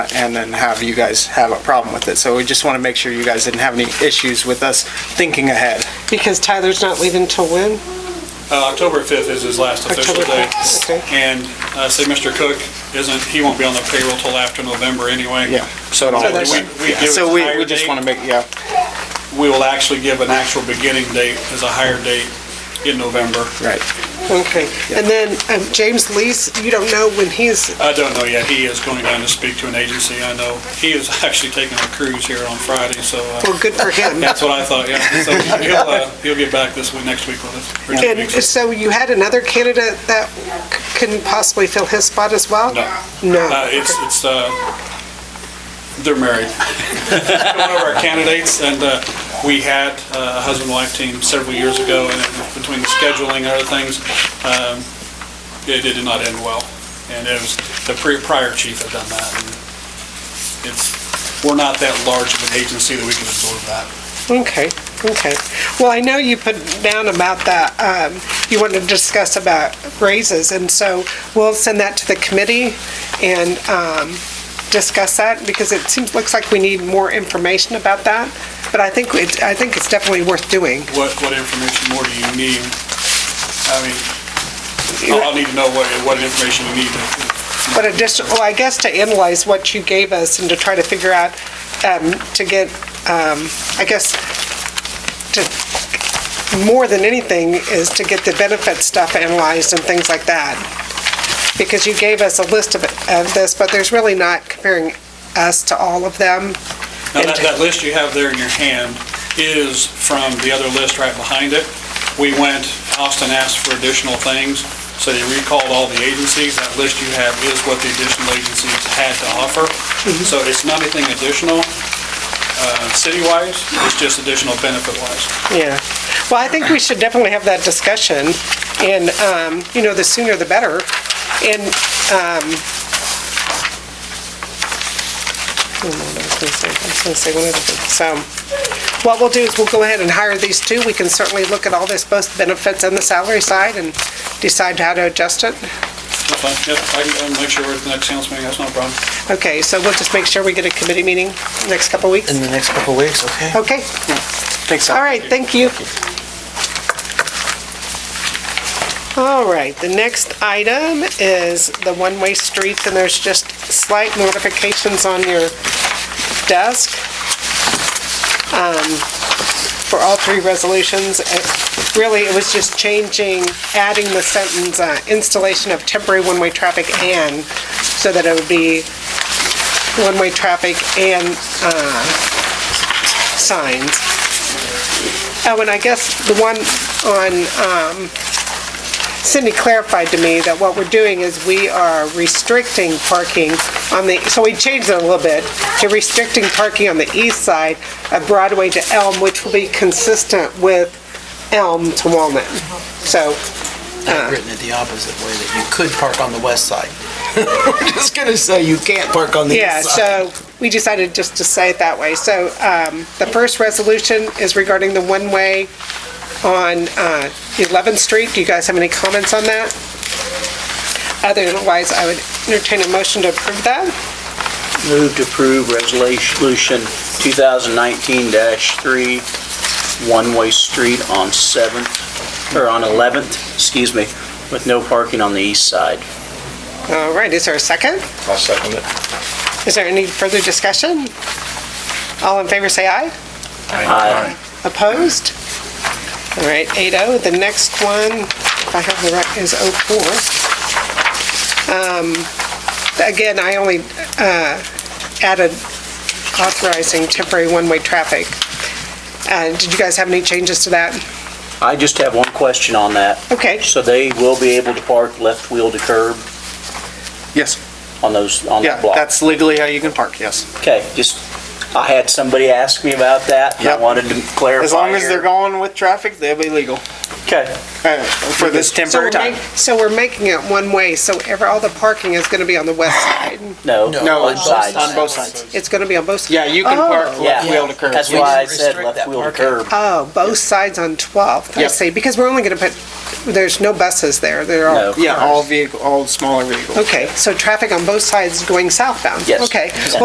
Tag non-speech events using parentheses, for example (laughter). and then have you guys have a problem with it. So we just want to make sure you guys didn't have any issues with us thinking ahead. Because Tyler's not leaving till when? Uh, October 5th is his last official October day. 5th, okay. And uh, say Mr. Cook isn't, he won't be on the payroll till after November anyway. Yeah, so it all So makes we- sense. we Yeah. give it So we, higher we just date? want to make, yeah, We will actually give an actual beginning date as a higher date in November. right. Okay. And then um, James Lees, you don't know when he's, I don't know yet. He is going down to speak to an agency, I know. He is (laughs) actually taking a cruise here on Friday, so uh, well, good for him. that's what I thought, (laughs) yeah. So he'll, uh, he'll get back this week, next week with us. or two And weeks. so you had another candidate that c- couldn't possibly fill his spot as well? No. Uh, No. It's, it's, uh, they're married. (laughs) One of our candidates, and uh, we had uh, a husband-wife team several years ago, and it- between the scheduling and other things, um, it it did not end well. And it was, the pre- prior chief had done that. and It's, we're not that large of an agency that we can absorb that. Okay, okay. Well, I know you put down about that, um, you wanted to discuss about raises, and so we'll send that to the committee and um, discuss that, because it seems, looks like we need more information about that, but I think, it- I think it's definitely worth doing. What, what information more do you need? I mean, I'll I'll need to know what, what information you need to But addition, well, I guess to analyze what you gave us and to try to figure out, um, to get, um, I guess, to, more than anything is to get the benefit stuff analyzed and things like that. Because you gave us a list of, of this, but there's really not comparing us to all of them. Now, that, that list you have there in your hand is from the other list right behind it. We went, Austin asked for additional things, so they recalled all the agencies. That list you have is what the additional agencies had to offer. So it's not anything additional, uh, city-wise, it's just additional benefit-wise. Yeah. Well, I think we should definitely have that discussion, and, um, you know, the sooner the better. And, um, I don't know what I was gonna say. I was gonna say one other thing. So, what we'll do is we'll go ahead and hire these two. We can certainly look at all this, both benefits and the salary side, and decide how to adjust it. That's fine, yep, I can I'll make sure we're at the next council meeting, that's no problem. Okay, so we'll just make sure we get a committee meeting next couple of weeks. in the next couple of weeks, okay? Oh, Okay, Thanks, Al. all right, thank you. All right, the next item is the one-way streets, and there's just slight notifications on your desk um, for all three resolutions. It- Really, it was just changing, adding the sentence, uh, installation of temporary one-way traffic and, so that it would be one-way traffic and uh, signs. Oh, and I guess the one on, um, Cindy clarified to me that what we're doing is we are restricting parking on the, so we changed it a little bit, to restricting parking on the east side of Broadway to Elm, which will be consistent with Elm to Walnut. So, I've written it the opposite way, that you could park on the west side. (laughs) We're just gonna say you can't park on the yeah, east side. so we decided just to say it that way. So, um, the first resolution is regarding the one-way on, uh, 11th Street. Do you guys have any comments on that? Otherwise, I would entertain a motion to approve that. Move to approve resolution 2019-3, one-way street on 7th, or on 11th, excuse me, with no parking on the east side. All right, is there a second? I'll second it. Is there any further discussion? All in favor, say aye. Aye. Opposed? All right, 8-0. The next one, if I have the right, is 04. Um, Again, I only uh, added authorizing temporary one-way traffic. Uh, Did you guys have any changes to that? I just have one question on that. Okay, So they will be able to park left wheel to curb Yes, on those, on yeah, that block? that's legally how you can park, yes. Okay, just, I had somebody ask me about that, and I Yep. wanted to clarify As long as here. they're going with traffic, they'll be legal. Okay. uh, for this So we're temporary make- time. So we're making it one way, so ever, all the parking is gonna be on the west side. No, No, on on sides. On both sides. It's gonna be on both sides? Yeah, you can park left Oh. Yeah. wheel to curb. That's We why I just said restrict left that wheel to parking. curb. Oh, both sides on 12th, I Yep. see, because we're only gonna put, there's no buses there, there No. are. Yeah, all vehicle, all smaller vehicles. Okay, so traffic on both sides going southbound? Yes. Okay, Yes.